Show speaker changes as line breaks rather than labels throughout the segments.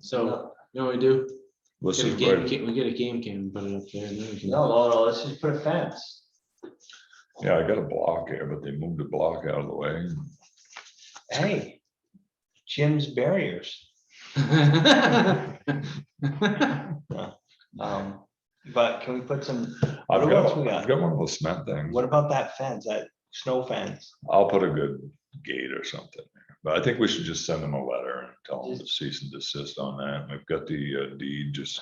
so, you know what we do?
Let's
Get a
just
game,
write,
ca- we get a game cam, and put it up there, and then we can.
No, oh, no, no, let's just put a fence.
yeah, I got a block here, but they moved the block out of the way.
Hey, Jim's barriers. Um, but can we put some,
I've
What else
got,
we got?
I've got one of those cement things.
what about that fence, that snow fence?
I'll put a good gate or something. there. But I think we should just send them a letter and tell them to cease and desist on that. We've got the uh, deed just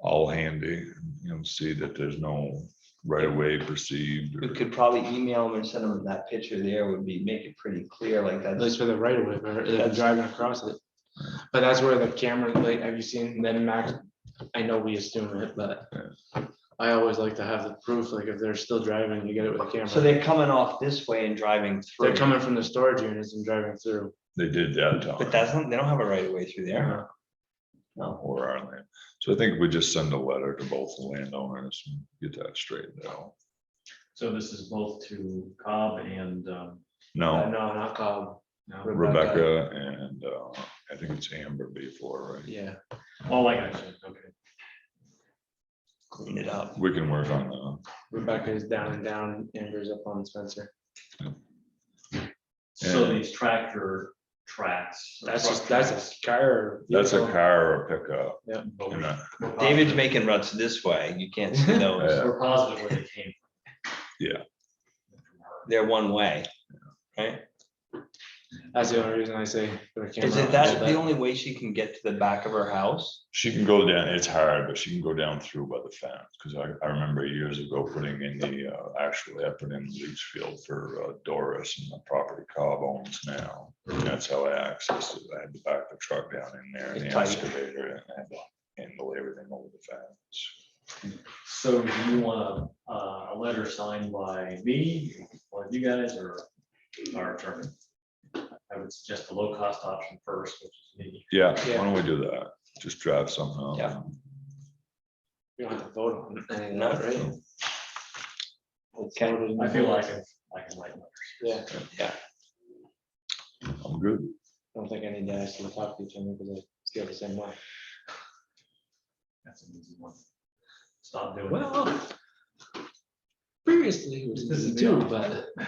all handy, you know, see that there's no right of way perceived.
We
or-
could probably email them and send them that picture there would be, make it pretty clear like
At
that.
least for the right of way, or if you're driving across it. But that's where the camera, like, have you seen them max? I know we assume it, but I always like to have the proof, like if they're still driving, you get it with a
So
camera.
they're coming off this way and driving through.
They're coming from the storage units and driving through.
They did that. Tom.
But that's not, they don't have a right of way through there.
Uh,
No,
Or our land. So I think we just send a letter to both the landowners and get that straightened out.
So this is both to Cobb and, um,
Uh, No,
Oh.
No,
not Cobb.
no.
Rebecca and uh, I think it's Amber before, right?
Yeah,
oh, like I said, okay.
clean it up.
We can work on that.
Rebecca is down and down, Amber's up on Spencer.
So
Yeah.
these tractor tracks. or
That's
truck
just, that's
tracks,
a car.
That's a
vehicle.
car or a pickup.
but
and uh,
we're-
that-
we're
Uh-huh.
positive-
David's making ruts this way. You can't see those.
Yeah.
We're positive where they came. from.
Yeah.
They're one way.
That's the only reason I say. put a
Is
camera
it
on
that
but-
the only way she can get to the back of her house?
She can go down, it's hard, but she can go down through by the fence, because I, I remember years ago putting in the, uh, actually, I put in leach field for uh, Doris and the property Cobb owns now. And that's how I accessed it, I had to back the truck down in there and the
Tight.
excavator and I had to handle everything over the fence.
So do you want a, uh, a letter signed by me, or you guys, or our attorney? I would suggest the low cost option first, which is me.
Yeah,
Yeah.
why don't we do that? Just draft somehow.
Yeah.
You don't have to vote on any of
Not
that, right?
Okay,
I feel like I I can like.
Yeah,
I'm good.
I don't think I need to actually talk to each other because I feel the same way.
That's an easy one. Stop doing it.
Well, previously it was
This is
easy too,
the-
but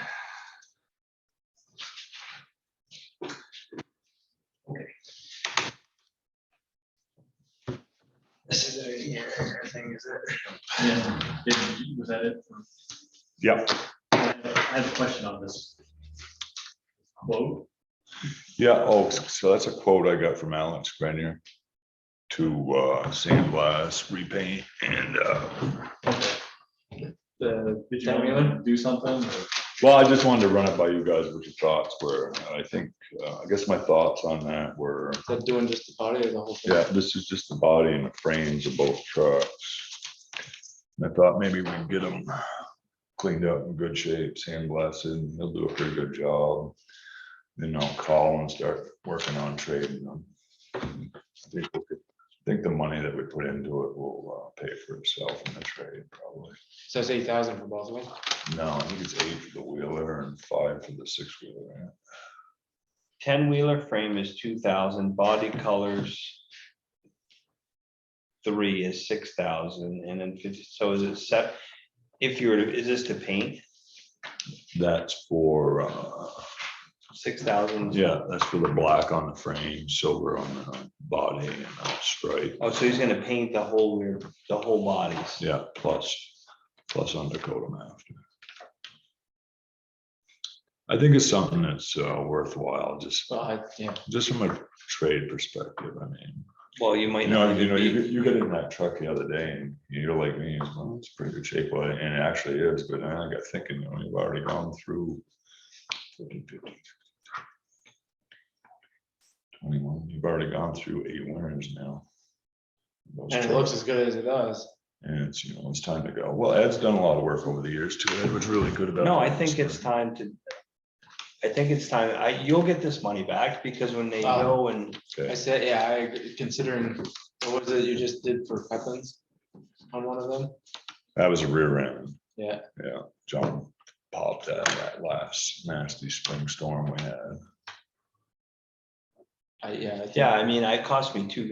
this is a- yeah, thing is it?
Yeah, did- was that it? for-
Yeah,
I have a question on this. Quote,
yeah, oh, so that's a quote I got from Alex Grenier to, uh, sandblast, repaint and, uh,
the.
did you want me to do something? or-
Well, I just wanted to run it by you guys, what your thoughts were. And I think, uh, I guess my thoughts on that were,
They're doing just the body or the whole thing.
yeah, this is just the body and the frames of both trucks. And I thought maybe we'd get them cleaned up in good shape, sandblasted, he'll do a pretty good job. Then I'll call and start working on trading them. I think we could- I think the money that we put into it will uh, pay for itself in the trade probably.
So it's eight thousand for both of them.
No, I think it's eight for the wheeler and five for the six wheeler. yeah.
Ten wheeler frame is two thousand, body colors. Three is six thousand and then fifty, so is it set, if you were, to- is this to paint,
That's for, uh,
six thousand?
yeah, that's for the black on the frame, silver on the body and uh, stripe.
Oh, so he's gonna paint the whole rear, the whole bodies.
Yeah, plus, plus undercoat them after. I think it's something that's uh, worthwhile, just,
Well, I, yeah,
just from a trade perspective, I mean.
Well, you might
You know,
not
you know,
even
you,
be,
you get in that truck the other day and you're like me, it's, well, it's pretty good shape, well, and it actually is, but then I got thinking, you know, you've already gone through. 14, 15, 21, you've already gone through eight winters now. Those
and it
trucks,
looks as good as it does.
And it's, you know, it's time to go. Well, Ed's done a lot of work over the years too. Ed was really good about.
no, I
that.
think it's time to. I think it's time, I, you'll get this money back because when they
Uh,
go and
I
Okay.
said, yeah, I agree, considering, what was it you just did for Pepin's on one of them?
That was a rear end.
Yeah.
Yeah, John popped that, that last nasty spring storm we had.
I, yeah. I think-
Yeah, I mean, it cost me two